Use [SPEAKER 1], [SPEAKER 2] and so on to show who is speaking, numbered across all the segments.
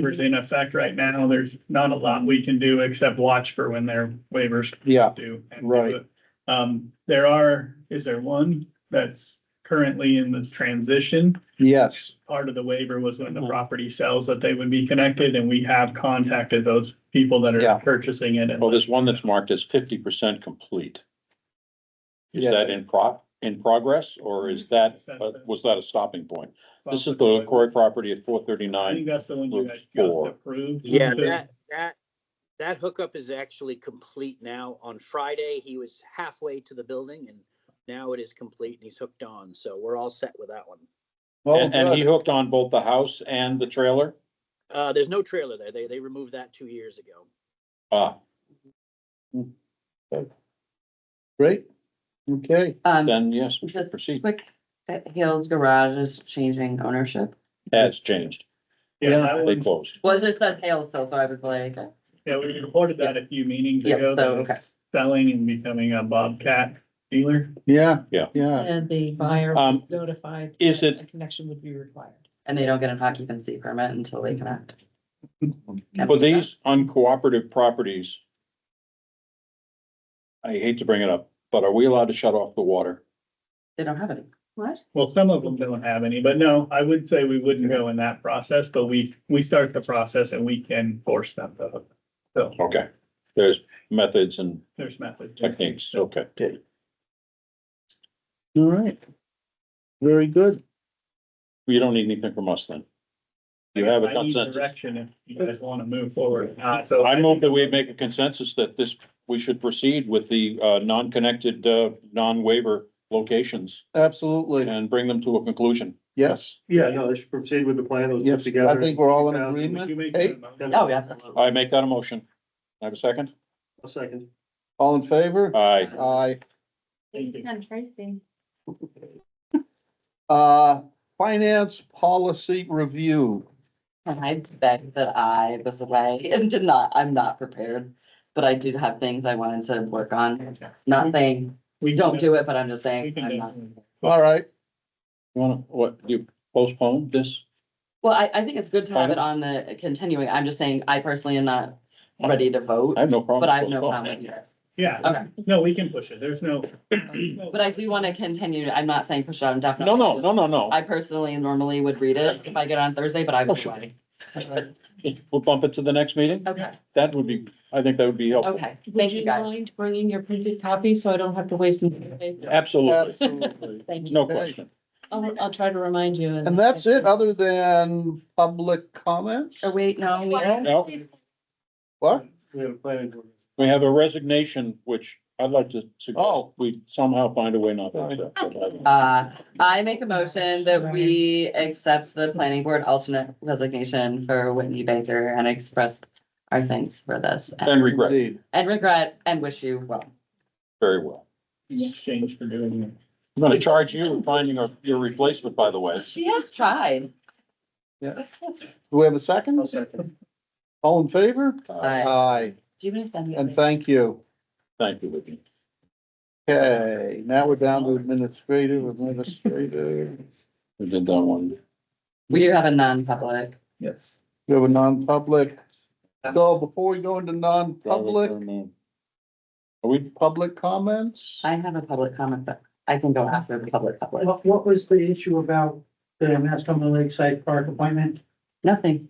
[SPEAKER 1] waivers in effect right now, there's not a lot we can do except watch for when their waivers
[SPEAKER 2] Yeah,
[SPEAKER 1] do. and do
[SPEAKER 2] Right.
[SPEAKER 1] it. Um, there are, is there one that's currently in the transition?
[SPEAKER 2] yes,
[SPEAKER 1] Part of the waiver was when the
[SPEAKER 3] Hmm.
[SPEAKER 1] property sells that they would be connected and we have contacted those people that
[SPEAKER 2] Yeah.
[SPEAKER 1] are purchasing it.
[SPEAKER 3] Well,
[SPEAKER 1] And
[SPEAKER 3] there's one that's marked as fifty percent complete. Is
[SPEAKER 2] Yeah.
[SPEAKER 3] that in pro, in progress, or is that, uh, was that a stopping point? This is the Corey property at four
[SPEAKER 1] I
[SPEAKER 3] thirty-nine.
[SPEAKER 1] think that's the one you guys just
[SPEAKER 3] Four.
[SPEAKER 1] approved.
[SPEAKER 4] Yeah, that, that, that hookup is actually complete now. On Friday, he was halfway to the building and now it is complete and he's hooked on. So we're all set with that one.
[SPEAKER 2] well,
[SPEAKER 3] And, and he
[SPEAKER 2] Oh, good,
[SPEAKER 3] hooked on both the house and the trailer?
[SPEAKER 4] Uh, there's no trailer there. They, they removed that two years ago.
[SPEAKER 3] Ah,
[SPEAKER 2] great, okay,
[SPEAKER 5] Um,
[SPEAKER 3] then yes, we should
[SPEAKER 5] Just-
[SPEAKER 3] proceed.
[SPEAKER 5] quick, that Hales Garage is changing ownership.
[SPEAKER 3] That's changed.
[SPEAKER 1] Yeah,
[SPEAKER 2] Yeah.
[SPEAKER 1] that
[SPEAKER 3] They
[SPEAKER 1] one's
[SPEAKER 3] closed.
[SPEAKER 5] Well, it just said Hales still, so I was like, okay.
[SPEAKER 1] Yeah, we reported that a few meetings
[SPEAKER 5] Yeah,
[SPEAKER 1] ago,
[SPEAKER 5] so,
[SPEAKER 1] that
[SPEAKER 5] okay.
[SPEAKER 1] it's selling and becoming a Bobcat dealer.
[SPEAKER 2] yeah.
[SPEAKER 3] Yeah.
[SPEAKER 2] Yeah,
[SPEAKER 6] And the buyer
[SPEAKER 3] Um,
[SPEAKER 6] was notified.
[SPEAKER 3] is
[SPEAKER 6] that
[SPEAKER 3] it-
[SPEAKER 6] A connection would be required.
[SPEAKER 5] and they don't get an occupancy permit until they connect.
[SPEAKER 3] For these uncooperative properties, I hate to bring it up, but are we allowed to shut off the water?
[SPEAKER 5] They don't have any. What?
[SPEAKER 1] Well, some of them don't have any, but no, I would say we wouldn't go in that process, but we, we start the process and we can force them to. hook. So
[SPEAKER 3] Okay, there's methods and
[SPEAKER 1] there's methods.
[SPEAKER 3] techniques, okay.
[SPEAKER 2] all right. Very good,
[SPEAKER 3] You don't need anything from us then. You have a
[SPEAKER 1] I need
[SPEAKER 3] consensus.
[SPEAKER 1] Direction if you guys want to move forward or not, so.
[SPEAKER 3] I move that we make a consensus that this, we should proceed with the uh, non-connected, uh, non-waiver locations
[SPEAKER 2] absolutely,
[SPEAKER 3] and bring them to a conclusion.
[SPEAKER 2] yes,
[SPEAKER 7] Yeah, no, they should proceed with the plan that was
[SPEAKER 2] yes,
[SPEAKER 7] put together.
[SPEAKER 2] I think we're all in
[SPEAKER 7] Um,
[SPEAKER 1] Would you
[SPEAKER 2] agreement,
[SPEAKER 1] make
[SPEAKER 2] hey,
[SPEAKER 1] that motion?
[SPEAKER 5] Oh, yeah, absolutely.
[SPEAKER 3] I make that a motion. I Have a second?
[SPEAKER 7] A second.
[SPEAKER 2] all in favor?
[SPEAKER 3] Aye.
[SPEAKER 2] Aye,
[SPEAKER 1] Thank you.
[SPEAKER 8] And Tracy.
[SPEAKER 2] uh, finance policy review,
[SPEAKER 5] And I beg that I was away and did not, I'm not prepared, but I did have things I wanted to work on. Not saying,
[SPEAKER 1] We
[SPEAKER 5] don't do it, but I'm just
[SPEAKER 1] We
[SPEAKER 5] saying,
[SPEAKER 1] can
[SPEAKER 5] I'm not.
[SPEAKER 1] definitely-
[SPEAKER 2] all right,
[SPEAKER 3] You wanna, what, you postpone this?
[SPEAKER 5] Well, I, I think it's good to have it on the continuing. I'm just saying, I personally am not ready to vote,
[SPEAKER 3] I have no problem.
[SPEAKER 5] but I have no problem with
[SPEAKER 3] postponing.
[SPEAKER 5] yours.
[SPEAKER 1] Yeah,
[SPEAKER 5] Okay.
[SPEAKER 1] no, we can push it. There's no.
[SPEAKER 5] But I do want to continue. I'm not saying push it out
[SPEAKER 3] No,
[SPEAKER 5] indefinitely.
[SPEAKER 3] no,
[SPEAKER 5] just-
[SPEAKER 3] no, no, no.
[SPEAKER 5] I personally normally would read it if I get on Thursday, but I
[SPEAKER 3] Oh,
[SPEAKER 5] was
[SPEAKER 3] sure.
[SPEAKER 5] away.
[SPEAKER 3] We'll bump it to the next meeting?
[SPEAKER 5] Okay,
[SPEAKER 3] That would be, I think that would be helpful.
[SPEAKER 5] okay.
[SPEAKER 6] Would
[SPEAKER 5] Thank you
[SPEAKER 6] you
[SPEAKER 5] guys.
[SPEAKER 6] mind bringing your printed copy so I don't have to waste? another day?
[SPEAKER 5] Uh,
[SPEAKER 3] Absolutely.
[SPEAKER 2] absolutely.
[SPEAKER 6] Thank you.
[SPEAKER 3] No question.
[SPEAKER 6] I'll, I'll try to remind you.
[SPEAKER 2] And that's it, other than public comments,
[SPEAKER 5] Oh, wait, no, we
[SPEAKER 8] Why?
[SPEAKER 3] No.
[SPEAKER 2] what?
[SPEAKER 7] We have a planning board.
[SPEAKER 3] We have a resignation, which I'd like to suggest
[SPEAKER 2] Oh.
[SPEAKER 3] we somehow find a way not to accept. but I-
[SPEAKER 5] Uh, I make a motion that we accept the planning board alternate resignation for Whitney Baker and express our thanks for this
[SPEAKER 3] And regret,
[SPEAKER 2] Indeed.
[SPEAKER 5] and regret and wish you well.
[SPEAKER 3] very well.
[SPEAKER 1] Exchange for doing it.
[SPEAKER 3] I'm gonna charge you with finding your, your replacement, by the way.
[SPEAKER 5] She has tried.
[SPEAKER 2] Yeah. Do we have a second?
[SPEAKER 7] second.
[SPEAKER 2] All in favor?
[SPEAKER 5] Aye.
[SPEAKER 2] Aye,
[SPEAKER 5] Do you want to send me? a
[SPEAKER 2] and
[SPEAKER 5] link?
[SPEAKER 2] thank you.
[SPEAKER 3] Thank you, Whitney.
[SPEAKER 2] Okay, now we're down to administrative, administrative.
[SPEAKER 3] We did that one.
[SPEAKER 5] We do have a non-public.
[SPEAKER 1] Yes.
[SPEAKER 2] We have a non-public. So before we go into non-public,
[SPEAKER 3] Are we,
[SPEAKER 2] public comments?
[SPEAKER 5] I have a public comment, but I can go after the public public.
[SPEAKER 9] What, what was the issue about the Mascoma Lakeside Park appointment?
[SPEAKER 5] Nothing.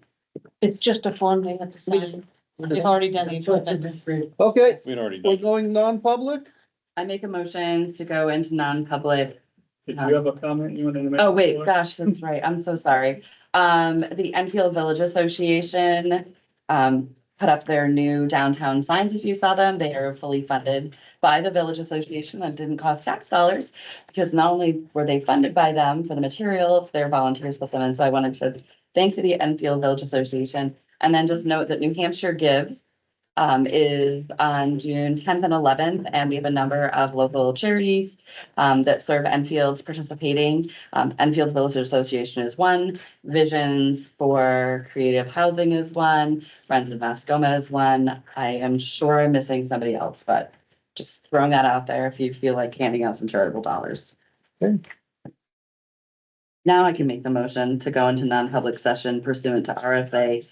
[SPEAKER 6] It's just a form they have to
[SPEAKER 5] We just-
[SPEAKER 6] sign. They've already done the appointment.
[SPEAKER 2] Okay,
[SPEAKER 3] we'd already
[SPEAKER 2] we're
[SPEAKER 3] done.
[SPEAKER 2] going non-public?
[SPEAKER 5] I make a motion to go into non-public
[SPEAKER 1] Did you have a comment you wanted to make?
[SPEAKER 5] Oh, wait,
[SPEAKER 1] before?
[SPEAKER 5] gosh, that's right. I'm so sorry. Um, the Enfield Village Association, um, put up their new downtown signs. If you saw them, they are fully funded by the Village Association. That didn't cost tax dollars because not only were they funded by them for the materials, their volunteers put them in. So I wanted to thank the Enfield Village Association. And then just note that New Hampshire Gives um, is on June tenth and eleventh, and we have a number of local charities um, that serve Enfield's participating. Um, Enfield Village Association is one, Visions for Creative Housing is one, Friends of Mascoma is one. I am sure I'm missing somebody else, but just throwing that out there if you feel like handing out some charitable dollars.
[SPEAKER 2] Okay.
[SPEAKER 5] Now I can make the motion to go into non-public session pursuant to RSA